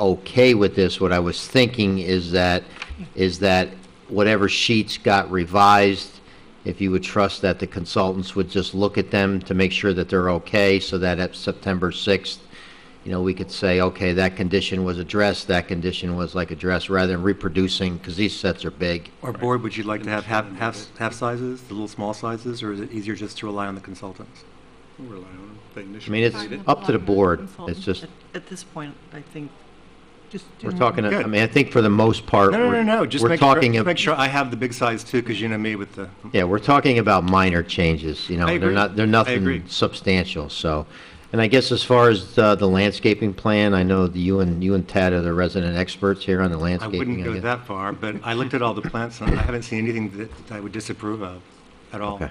okay with this, what I was thinking is that, is that whatever sheets got revised, if you would trust that the consultants would just look at them to make sure that they're okay, so that at September 6th, you know, we could say, okay, that condition was addressed, that condition was like addressed, rather than reproducing, because these sets are big. Or board, would you like to have half, half, half sizes, the little small sizes, or is it easier just to rely on the consultants? We'll rely on them. They I mean, it's up to the board. It's just, At- At this point, I think, just. do we're not- talking, I Good. mean, I think for the most part. No, no, no, we're- no, just we're make sure, talking just ab- make sure I have the big size too, because you know me with the, Yeah, we're talking about minor changes, you know, I they're agree. not, they're I agree. nothing substantial, so. And I guess as far as uh, the landscaping plan, I know that you and, you and Tad are the resident experts here on the I landscaping. wouldn't go guess. that far, but I looked at all the plants, and I haven't seen anything that I would disapprove of at all. Okay.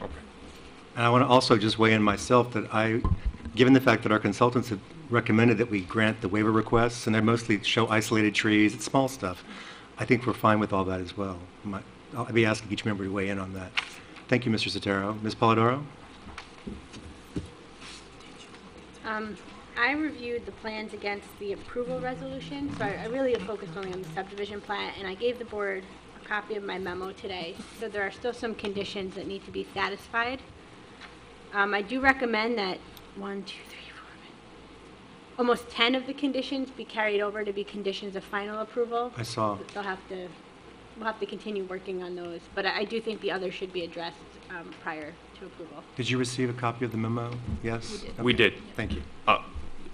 And I want to also just weigh in myself that I, given the fact that our consultants have recommended that we grant the waiver requests, and they're mostly show isolated trees, it's small stuff, I think we're fine with all that as well. My- I'll be asking each member to weigh in on that. Thank you, Mr. Sotero. Ms. Polidoro? Um, I reviewed the plans against the approval resolution, so I I really have focused only on the subdivision plan, and I gave the board a copy of my memo today, so there are still some conditions that need to be satisfied. Um, I do recommend that one, two, three, four, five, almost 10 of the conditions be carried over to be conditions of final approval. I saw. They'll have to, we'll have to continue working on those, but I I do think the others should be addressed um, prior to approval. Did you receive a copy of the memo? Yes? We did. Thank you. Uh,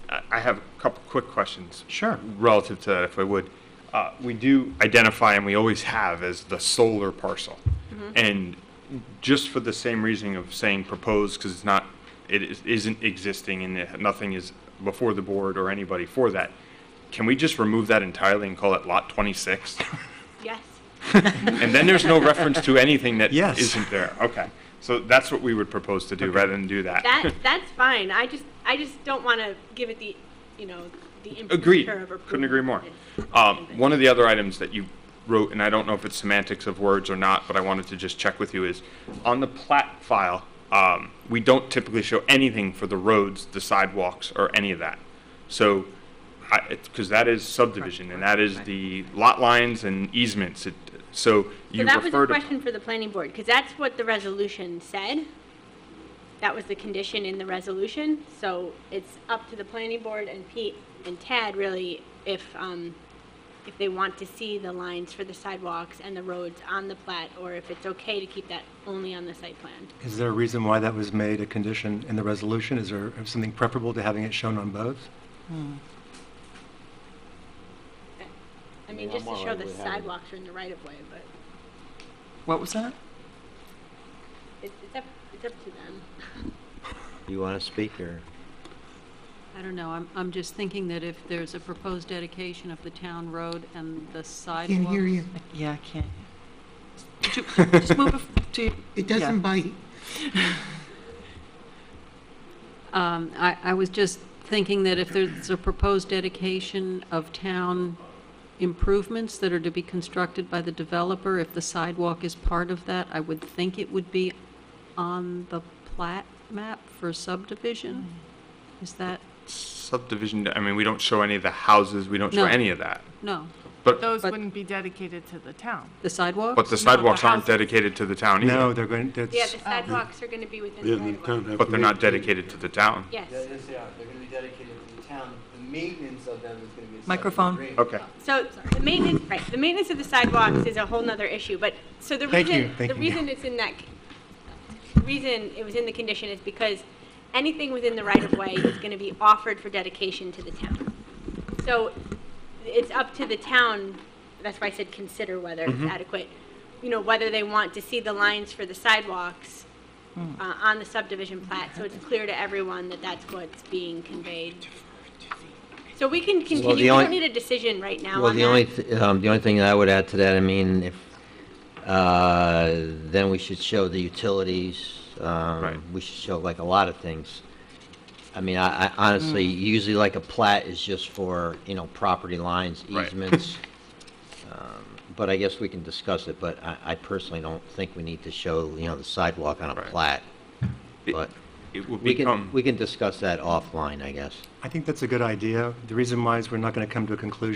I I have a couple quick questions. Sure. Relative to that, if I would. Uh, We do identify, and we always have, as the solar parcel. Mm-hmm. And just for the same reasoning of saying proposed, because it's not, it is- isn't existing and it- nothing is before the board or anybody for that, can we just remove that entirely and call it Lot 26? Yes? And then there's no reference to anything that Yes. isn't there. Okay. So that's what we would propose to do, rather than do that. That, that's fine. I just, I just don't want to give it the, you know, the Agreed. imprimatur of approval. Couldn't agree more. It's- Um, One of the other items that you wrote, and I don't know if it's semantics of words or not, but I wanted to just check with you, is on the plat file, um, we don't typically show anything for the roads, the sidewalks, or any of that. So, because that is subdivision, and that is the lot lines and easements. It- So So you that was a refer to. question for the planning board, because that's what the resolution said. That was the condition in the resolution, so it's up to the planning board and Pete and Tad really if, um, if they want to see the lines for the sidewalks and the roads on the plat, or if it's okay to keep that only on the site plan. Is there a reason why that was made a condition in the resolution? Is there something preferable to having it shown on both? hmm, I mean, just to show the sidewalks are in the right of way, but What was that? it's, it's up, it's up to them. You want to speak, or? I don't know, I'm, I'm just thinking that if there's a proposed dedication of the town road and the sidewalks. Can't hear you. Yeah, I can't. Ju- ju- Just move it to. It yeah. doesn't bite. Um, I, I was just thinking that if there's a proposed dedication of town improvements that are to be constructed by the developer, if the sidewalk is part of that, I would think it would be on the plat map for subdivision. Is that, subdivision, I mean, we don't show any of the houses, we don't show No. any of that. no, But, Those But- wouldn't be dedicated to the town. the sidewalk? but the sidewalks aren't houses. dedicated to the town either. No, they're going, that's. Yeah, the sidewalks are going to be within the right of way. But they're not dedicated to the town. Yes. Yeah, yes, they are. They're gonna be dedicated to the town. The maintenance of them is gonna be a separate Microphone. agreement. Okay. So the maintenance, right, the maintenance of the sidewalks is a whole nother issue, but, so the Thank you, reason, thank the you. reason it's in that, the reason it was in the condition is because anything within the right of way is going to be offered for dedication to the town. So it's up to the town, that's why I said consider whether it's Mm-hmm. adequate, you know, whether they want to see the lines for the sidewalks uh, on the subdivision plat, so it's clear to everyone that that's what's being conveyed. So we can continue, we only- don't need a decision right now Well, on the that. only, th- um, the only thing that I would add to that, I mean, if, uh, then we should show the utilities, Right. um, we should show like a lot of things. I mean, I, I honestly, Mm. usually like a plat is just for, you know, property lines, Right. easements. um, But I guess we can discuss it, but I, I personally don't think we need to show, you know, the sidewalk on a Right. plat. But it would We can, become. we can discuss that offline, I guess. I think that's a good idea. The reason why is we're not going to come to a conclusion